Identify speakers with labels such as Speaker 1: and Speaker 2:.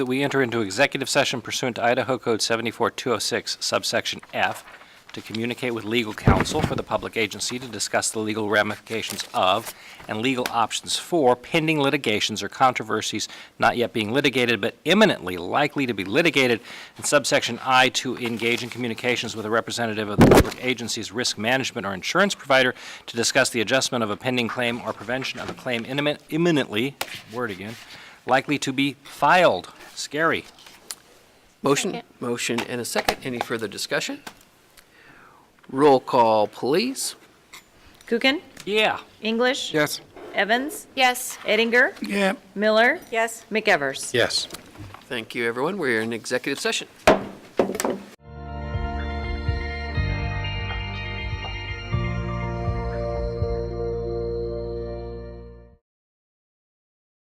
Speaker 1: that we enter into executive session pursuant to Idaho Code 74206 subsection F to communicate with legal counsel for the public agency to discuss the legal ramifications of and legal options for pending litigations or controversies not yet being litigated but imminently likely to be litigated, and subsection I to engage in communications with a representative of the public agency's risk management or insurance provider to discuss the adjustment of a pending claim or prevention of a claim imminent- imminently, word again, likely to be filed. Scary.
Speaker 2: Motion, motion and a second. Any further discussion? Roll call, please.
Speaker 3: Kukin,
Speaker 1: Yeah.
Speaker 3: English.
Speaker 4: Yes.
Speaker 3: Evans,
Speaker 5: Yes.
Speaker 3: Eddinger,
Speaker 4: Yeah.
Speaker 3: Miller,
Speaker 5: Yes.
Speaker 3: McEvers.
Speaker 4: Yes.
Speaker 2: Thank you, everyone. We're in executive session.